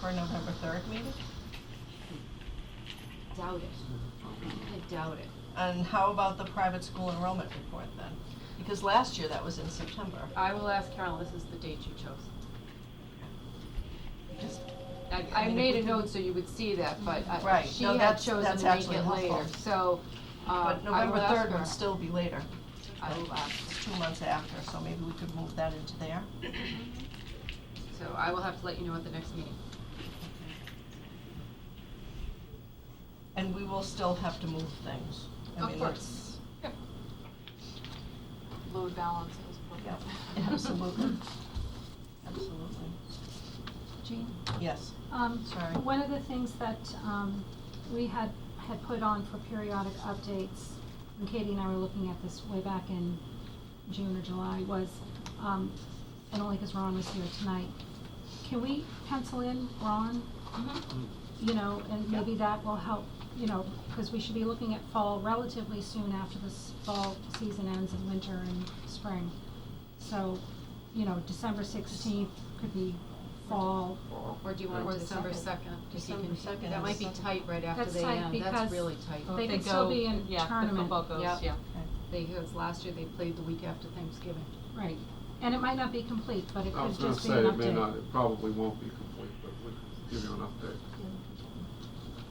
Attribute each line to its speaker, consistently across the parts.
Speaker 1: for a November third meeting?
Speaker 2: Doubt it. I doubt it.
Speaker 1: And how about the private school enrollment report then? Because last year that was in September.
Speaker 2: I will ask Carol, this is the date you chose.
Speaker 1: Just-
Speaker 2: I,
Speaker 1: I
Speaker 2: I
Speaker 1: mean,
Speaker 2: made
Speaker 1: if
Speaker 2: a
Speaker 1: we
Speaker 2: note so you would see that, but I,
Speaker 1: Right.
Speaker 2: she
Speaker 1: No,
Speaker 2: had
Speaker 1: that's-
Speaker 2: chosen
Speaker 1: that's
Speaker 2: to make
Speaker 1: actually
Speaker 2: it later,
Speaker 1: helpful.
Speaker 2: so, uh,
Speaker 1: But
Speaker 2: I will
Speaker 1: November
Speaker 2: ask
Speaker 1: third
Speaker 2: her.
Speaker 1: would still be later,
Speaker 2: I will ask,
Speaker 1: it's two months after, so maybe we could move that into there.
Speaker 2: so I will have to let you know at the next meeting.
Speaker 1: And we will still have to move things. I
Speaker 2: Of
Speaker 1: mean,
Speaker 2: course.
Speaker 3: load balancing is important.
Speaker 1: that's- Yeah, absolutely, absolutely.
Speaker 4: Jean?
Speaker 1: Yes,
Speaker 4: Um,
Speaker 1: Sorry.
Speaker 4: One of the things that um, we had, had put on for periodic updates, and Katie and I were looking at this way back in June or July, was, um, and only because Ron was here tonight, can we pencil in Ron?
Speaker 2: Mm-hmm.
Speaker 4: You know, and maybe that will help, you know, because we should be looking at fall relatively soon after this fall season ends and winter and spring. So, you know, December sixteenth could be fall.
Speaker 2: Or do you
Speaker 5: Or
Speaker 2: want
Speaker 5: the
Speaker 2: December second?
Speaker 1: December 2nd
Speaker 2: That
Speaker 1: is
Speaker 2: might be
Speaker 1: Sunday.
Speaker 2: tight right after
Speaker 4: That's
Speaker 2: they
Speaker 4: tight
Speaker 2: end,
Speaker 4: because
Speaker 2: that's really tight.
Speaker 4: They could still be in tournament.
Speaker 5: Yeah, the football goes,
Speaker 2: Yep.
Speaker 5: yeah.
Speaker 1: okay.
Speaker 2: They, because last year they played the week after Thanksgiving.
Speaker 4: Right, and it might not be complete, but it
Speaker 6: I was
Speaker 4: could
Speaker 6: gonna
Speaker 4: just be an update.
Speaker 6: say, it may not, it probably won't be complete, but we can give you an update.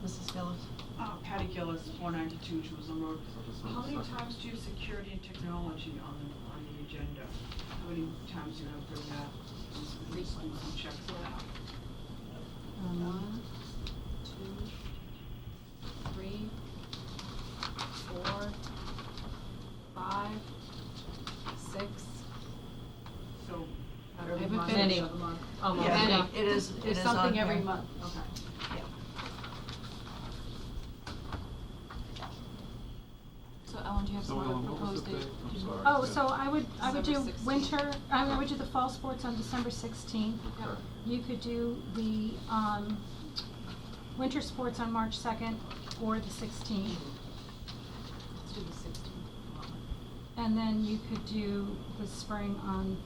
Speaker 1: Mrs. Gillis?
Speaker 7: Uh, Patty Gillis, four ninety-two Jerusalem Road.
Speaker 6: Just
Speaker 7: How
Speaker 6: one
Speaker 7: many
Speaker 6: second.
Speaker 7: times do you have security and technology on the, on the agenda? How many times do you have bring that? Just do some checks of that.
Speaker 4: Um,
Speaker 2: One, two, three, four, five, six.
Speaker 7: So.
Speaker 2: I
Speaker 7: every
Speaker 2: haven't
Speaker 7: month,
Speaker 2: finished.
Speaker 7: every month.
Speaker 5: Almost.
Speaker 1: Yeah,
Speaker 2: Many.
Speaker 1: It is, it
Speaker 2: There's
Speaker 1: is on
Speaker 2: something every
Speaker 1: here.
Speaker 2: month, okay.
Speaker 3: So Ellen, do you have
Speaker 6: So
Speaker 3: some other
Speaker 6: Ellen, what was
Speaker 3: proposed
Speaker 6: the
Speaker 3: date?
Speaker 6: date? I'm sorry.
Speaker 4: Oh, so I would, I would do
Speaker 2: December 16th.
Speaker 4: winter, I mean, I would do the fall sports on December sixteenth.
Speaker 6: Okay.
Speaker 4: You could do the, um, winter sports on March second or the sixteenth.
Speaker 2: Let's do the sixteen.
Speaker 4: And then you could do the spring on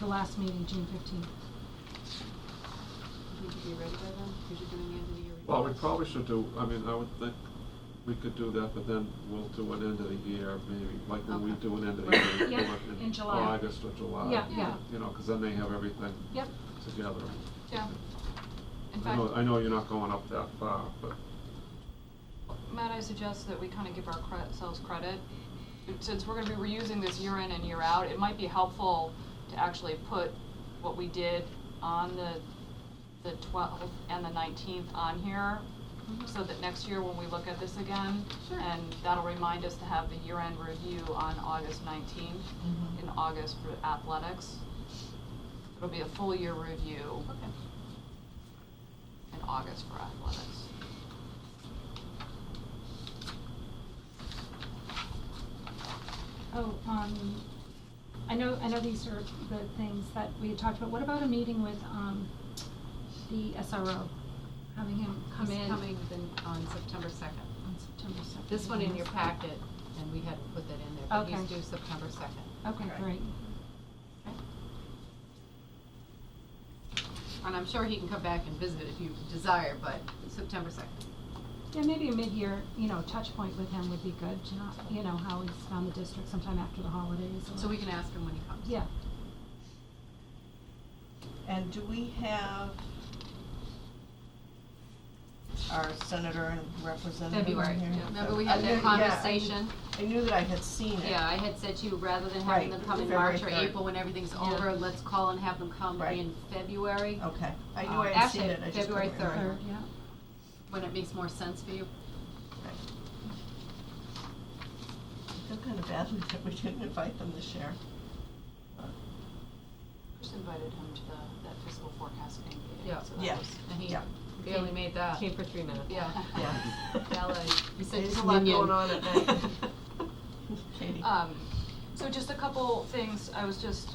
Speaker 4: the last meeting, June fifteenth.
Speaker 2: Would you be ready by then? Because you're doing the end of the year.
Speaker 6: Well, we
Speaker 2: reports.
Speaker 6: probably should do, I mean, I would think we could do that, but then we'll do an end of the year, maybe, like when we
Speaker 2: Okay.
Speaker 6: do an end of the year
Speaker 4: Yeah,
Speaker 6: report
Speaker 4: in
Speaker 6: in
Speaker 4: July.
Speaker 6: August or July.
Speaker 4: Yeah, yeah.
Speaker 6: You know, 'cause then they have everything
Speaker 4: Yep.
Speaker 6: together.
Speaker 3: Yeah. In
Speaker 6: I
Speaker 3: fact,
Speaker 6: know, I know you're not going up that far, but
Speaker 3: Matt, I suggest that we kind of give our cre- ourselves credit. Since we're gonna be reusing this year in and year out, it might be helpful to actually put what we did on the, the twelfth and the nineteenth on here, so that next year when we look at this again,
Speaker 2: Sure.
Speaker 3: and that'll remind us to have the year-end review on August nineteenth,
Speaker 2: Mm-hmm.
Speaker 1: Mhm.
Speaker 3: in August for athletics. It'll be a full year review
Speaker 2: Okay.
Speaker 3: in August for athletics.
Speaker 4: Oh, um, I know, I know these are the things that we had talked about. What about a meeting with, um, the SRO? Having him come in
Speaker 2: He's coming then on September second.
Speaker 4: on September second.
Speaker 2: This one in your packet, and we hadn't put that in there, but he's
Speaker 4: Okay.
Speaker 2: due September second.
Speaker 4: Okay,
Speaker 7: Okay.
Speaker 4: great.
Speaker 2: And I'm sure he can come back and visit if you desire, but September second.
Speaker 4: Yeah, maybe a mid-year, you know, touch point with him would be good to not, you know, how he's found the district sometime after the holidays or.
Speaker 2: So we can ask him when he comes.
Speaker 4: Yeah.
Speaker 1: And do we have our senator and representative in here?
Speaker 2: February, yeah. Remember we had
Speaker 1: I
Speaker 2: that
Speaker 1: knew- yeah, I knew-
Speaker 2: conversation?
Speaker 1: I knew that I had seen it.
Speaker 2: Yeah, I had said to you, rather than
Speaker 1: Right,
Speaker 2: having them come in
Speaker 1: February
Speaker 2: March or
Speaker 1: third.
Speaker 2: April when everything's
Speaker 3: Yeah.
Speaker 2: over, let's call and have them come
Speaker 1: Right.
Speaker 2: in February,
Speaker 1: Okay, I knew
Speaker 2: Uh,
Speaker 1: I had seen
Speaker 2: actually,
Speaker 1: it, I just couldn't
Speaker 2: February
Speaker 1: remember.
Speaker 2: Third.
Speaker 4: Third, yeah.
Speaker 2: when it makes more sense for you.
Speaker 1: Right. I feel kind of badly that we didn't invite them this year.
Speaker 3: Just invited him to the, that fiscal forecasting meeting,
Speaker 2: Yeah.
Speaker 3: so that
Speaker 1: Yeah.
Speaker 3: was-
Speaker 2: And he
Speaker 1: Yeah.
Speaker 2: barely made that.
Speaker 5: Came for three minutes.
Speaker 2: Yeah.
Speaker 1: Yeah.
Speaker 2: Ballet. uh, You said
Speaker 1: There's
Speaker 2: he's
Speaker 1: a lot
Speaker 2: minion.
Speaker 1: going on at night. Katie?
Speaker 3: Um, so just a couple things, I was just,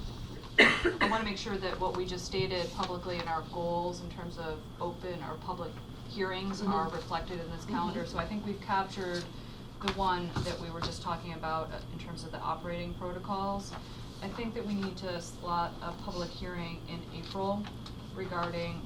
Speaker 3: I wanna make sure that what we just stated publicly in our goals in terms of open or public hearings are reflected in this calendar. So I think we've captured the one that we were just talking about uh, in terms of the operating protocols. I think that we need to slot a public hearing in April regarding